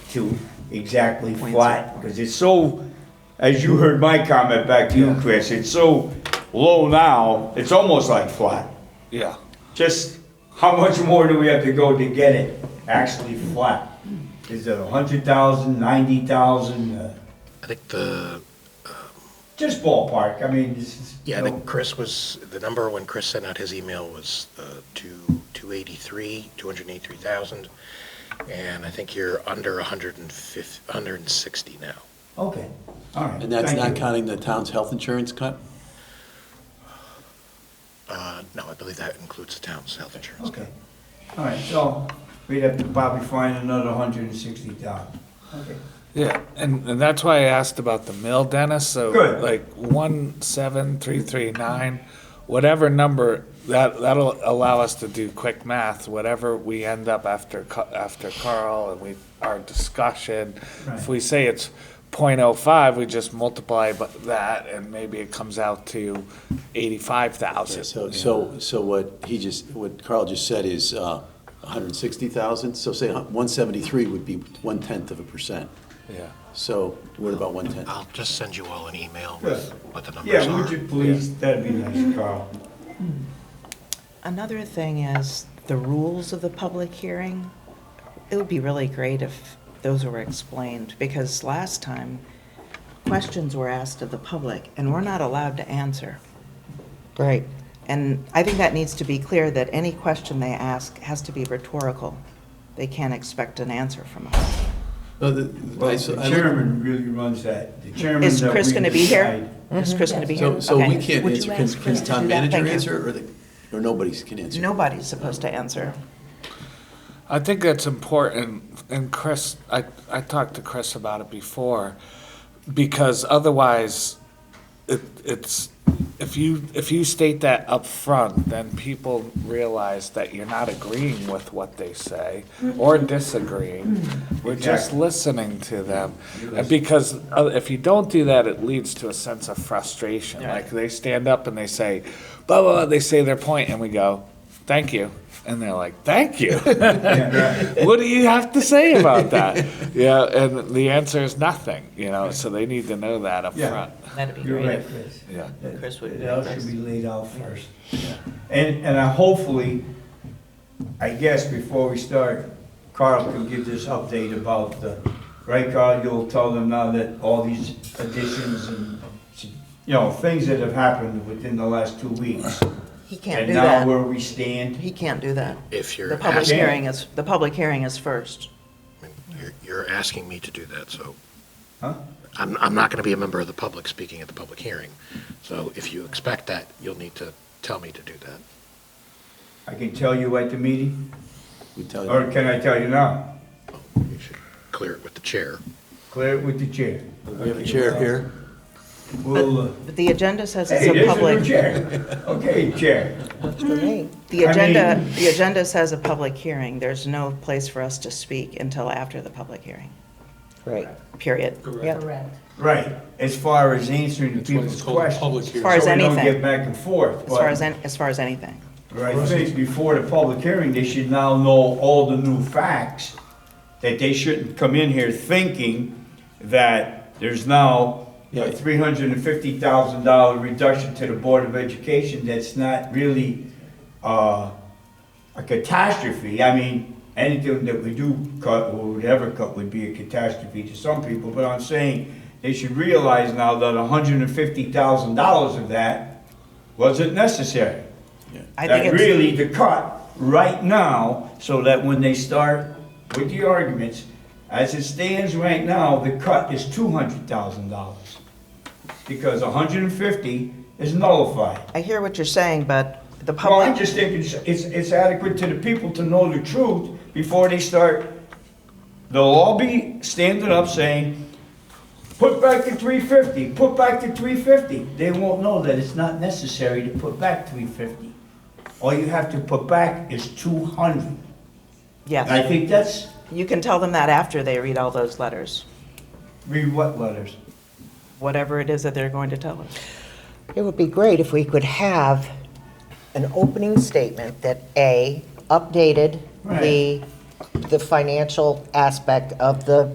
to exactly flat, because it's so, as you heard my comment back to you, Chris, it's so low now, it's almost like flat. Yeah. Just how much more do we have to go to get it actually flat? Is it a hundred thousand, ninety thousand, uh, I think the, just ballpark, I mean, this is. yeah, I you know, think Chris was, the number when Chris sent out his email was uh, two, 283, 283,000. And I think you're under 150, 160 now. Okay, all right. And that's thank not you. counting the town's health insurance cut? Uh, No, I believe that includes the town's health insurance. Okay, all right, so we'd have to probably find another hundred and sixty thousand. Okay. Yeah, and, and that's why I asked about the mill, Dennis, so Good. like one, seven, three, three, nine, whatever number, that, that'll allow us to do quick math, whatever we end up after, Ca- after Carl and we, our discussion. If Right. we say it's point oh five, we just multiply bu- that and maybe it comes out to eighty-five thousand. So, so, so what he just, what Carl just said is uh, 160,000, so say 173 would be one-tenth of a percent. Yeah, So what about one-tenth? I'll just send you all an email with Yes. what the numbers Yeah, would are. you please, that'd be nice, Carl. Another thing is the rules of the public hearing. It would be really great if those were explained, because last time, questions were asked of the public, and we're not allowed to answer. Right. And I think that needs to be clear, that any question they ask has to be rhetorical. They can't expect an answer from us. No, the- I- Well, so the I look- chairman really runs that, the chairman. Is that Chris we going to be here? decide- Is Chris going to be here? So, so we Okay. can't Would you answer, can, ask can Chris to town do that? manager Thank you. answer, or the, or nobody can answer? Nobody's supposed to answer. I think that's important, and Chris, I, I talked to Chris about it before, because otherwise, it, it's, if you, if you state that up front, then people realize that you're not agreeing with what they say, or disagreeing, we're just Exactly. listening to them. And Because uh, if you don't do that, it leads to a sense of frustration, like they stand up and they say, blah, blah, blah, they say their point, and we go, thank you, and they're like, thank you. Yeah, right. what do you have to say about that? yeah, and the answer is nothing, you know, so they need to know that up Yeah. front. That'd be You're great. right, Chris. Yeah. That- Chris would be That all nice. should be laid out first. And, and I hopefully, I guess before we start, Carl can give this update about the, right, Carl, you'll tell them now that all these additions and, you know, things that have happened within the last two weeks. He can't do And now that. where we stand. He can't do that. If The you're public asking, hearing is, the public hearing is first. you're- you're asking me to do that, so Huh? I'm, I'm not going to be a member of the public speaking at the public hearing. So if you expect that, you'll need to tell me to do that. I can tell you at the meeting, We tell you. or can I tell you now? You should clear it with the chair. Clear it with the chair. We have a chair here. We'll, uh, But the agenda says it's hey, a there's a new public, chair. Okay, chair. the I agenda, mean- the agenda says a public hearing. There's no place for us to speak until after the public hearing, Right. period. Yep. Correct. Right, as far as answering the people's questions. As far as So we don't get anything, back and forth, as far but as, an- as far as anything. but I think before the public hearing, they should now know all the new facts, that they shouldn't come in here thinking that there's now Yeah. a three hundred and fifty thousand dollar reduction to the Board of Education that's not really, uh, a catastrophe. I mean, anything that we do cut or would ever cut would be a catastrophe to some people, but I'm saying they should realize now that hundred and fifty thousand dollars of that wasn't necessary. I That think it's, really to cut right now, so that when they start with the arguments, as it stands right now, the cut is two hundred thousand dollars. Because $150 is nullified. I hear what you're saying, but the Well, I'm public, just thinking it's, it's it's adequate to the people to know the truth before they start. They'll all be standing up saying, put back the three fifty, put back the three fifty. They won't know that it's not necessary to put back three fifty. All you have to put back is two hundred. And I yes, think that's, you can tell them that after they read all those letters, read what letters? whatever it is that they're going to tell us. It would be great if we could have an opening statement that, A, updated the, the financial aspect of the